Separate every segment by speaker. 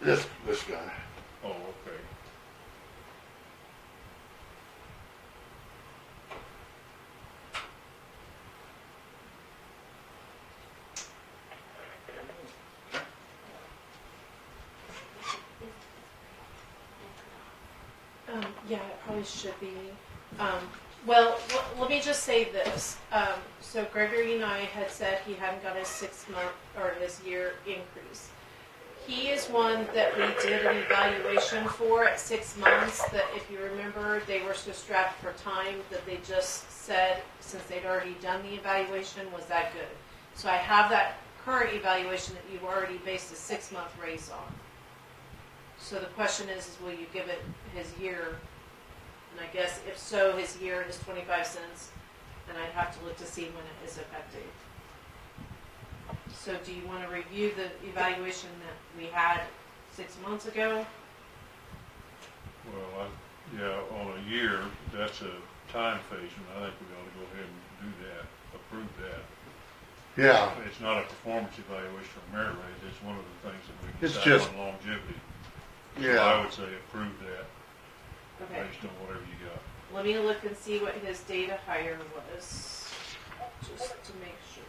Speaker 1: This, this guy.
Speaker 2: Oh, okay.
Speaker 3: Um, yeah, it probably should be. Um, well, l- let me just say this. Um, so Gregory and I had said he hadn't got his six month or his year increase. He is one that we did an evaluation for at six months. That if you remember, they were so strapped for time that they just said, since they'd already done the evaluation, was that good? So I have that current evaluation that you've already based a six month raise on. So the question is, is will you give it his year? And I guess if so, his year is twenty-five cents, and I'd have to look to see when it is effective. So do you wanna review the evaluation that we had six months ago?
Speaker 2: Well, I, yeah, on a year, that's a time phase, and I think we ought to go ahead and do that, approve that.
Speaker 1: Yeah,
Speaker 2: It's not a performance evaluation or merit raise, it's one of the things that we
Speaker 1: It's
Speaker 2: decide
Speaker 1: just-
Speaker 2: on longevity. So I
Speaker 1: yeah.
Speaker 2: would say approve that,
Speaker 3: Okay,
Speaker 2: based on whatever you got.
Speaker 3: let me look and see what his data hire was, just to make sure.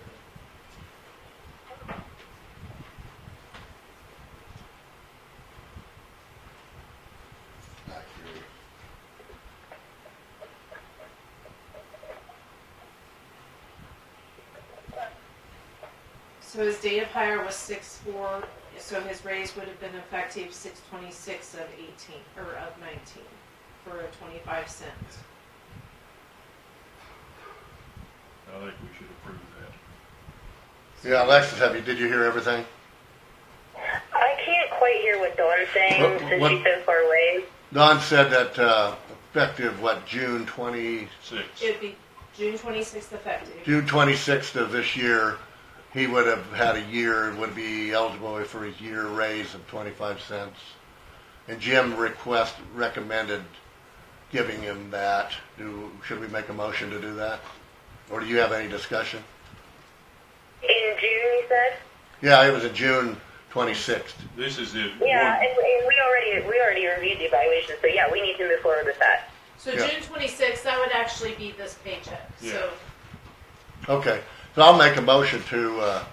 Speaker 1: Back here.
Speaker 3: So his date of hire was six four, so his raise would have been effective six twenty-six of eighteen, or of nineteen, for a twenty-five cent.
Speaker 2: I think we should approve that.
Speaker 1: Yeah, Alexis, have you, did you hear everything?
Speaker 4: I can't quite hear what Dawn's saying
Speaker 1: What-
Speaker 4: since
Speaker 1: what-
Speaker 4: she's so far away.
Speaker 1: Don said that, uh, effective, what, June twenty,
Speaker 2: Six,
Speaker 3: It'd be June twenty-sixth effective.
Speaker 1: June twenty-sixth of this year, he would have had a year, would be eligible for his year raise of twenty-five cents. And Jim request, recommended giving him that. Do, should we make a motion to do that? Or do you have any discussion?
Speaker 4: In June, you said?
Speaker 1: Yeah, it was a June twenty-sixth.
Speaker 2: this is the.
Speaker 4: Yeah,
Speaker 2: one-
Speaker 4: and, and we already we already reviewed the evaluation, so yeah, we need to move forward with that.
Speaker 3: So
Speaker 1: Yeah.
Speaker 3: June twenty-sixth, that would actually be this paycheck, so,
Speaker 1: Okay, so I'll make a motion to, uh,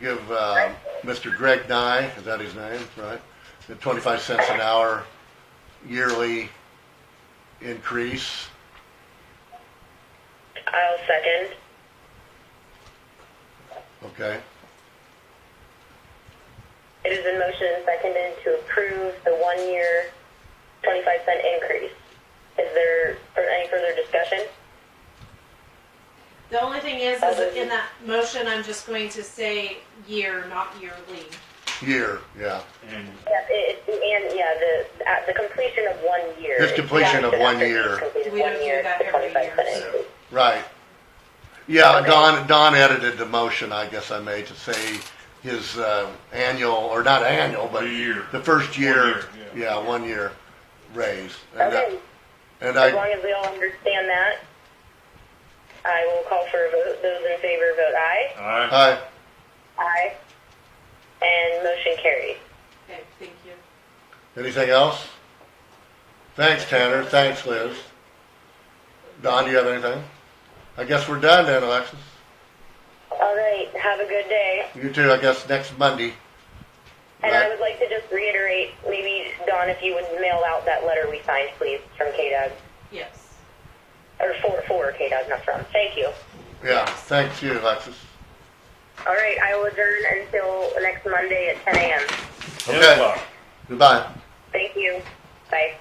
Speaker 1: give, uh, Mr. Greg Nye, is that his name, right? The twenty-five cents an hour yearly increase.
Speaker 4: I'll second.
Speaker 1: Okay,
Speaker 4: It has been motioned and seconded to approve the one-year, twenty-five cent increase. Is there or any further discussion?
Speaker 3: the only thing is, is that in that motion, I'm just going to say year, not yearly.
Speaker 1: year, yeah.
Speaker 2: And
Speaker 4: Yeah, it, it- and yeah, the at the completion of one year.
Speaker 1: It's completion of
Speaker 4: Yeah,
Speaker 1: one
Speaker 4: after
Speaker 1: year.
Speaker 4: it's completed
Speaker 3: We
Speaker 4: one
Speaker 3: don't do
Speaker 4: year,
Speaker 3: that
Speaker 4: the
Speaker 3: every
Speaker 4: 25
Speaker 3: year,
Speaker 4: cent
Speaker 3: so-
Speaker 4: increase.
Speaker 1: Right. Yeah,
Speaker 4: Okay.
Speaker 1: Don, Don edited the motion, I guess I made, to say his uh, annual, or not annual, but
Speaker 2: The year.
Speaker 1: the first year,
Speaker 2: year, yeah.
Speaker 1: yeah, one year raise. And I-
Speaker 4: Okay,
Speaker 1: And
Speaker 4: as
Speaker 1: I,
Speaker 4: long as we all understand that, I will call for a vote. Those in favor, vote aye.
Speaker 2: I,
Speaker 1: I,
Speaker 4: Aye. And motion carries.
Speaker 3: Okay, thank you.
Speaker 1: anything else? Thanks, Tanner, thanks, Liz. Don, do you have anything? I guess we're done then, Alexis.
Speaker 4: All right, have a good day.
Speaker 1: You too, I guess, next Monday.
Speaker 4: And
Speaker 1: Right.
Speaker 4: I would like to just reiterate, maybe Don, if you would mail out that letter we signed, please, from KDOG,
Speaker 3: Yes.
Speaker 4: or for for KDOG, not from. Thank you.
Speaker 1: Yeah, thanks you, Alexis.
Speaker 4: All right, I will adjourn until next Monday at 10 a.m.
Speaker 1: Okay. Goodbye.
Speaker 4: Thank you. Bye.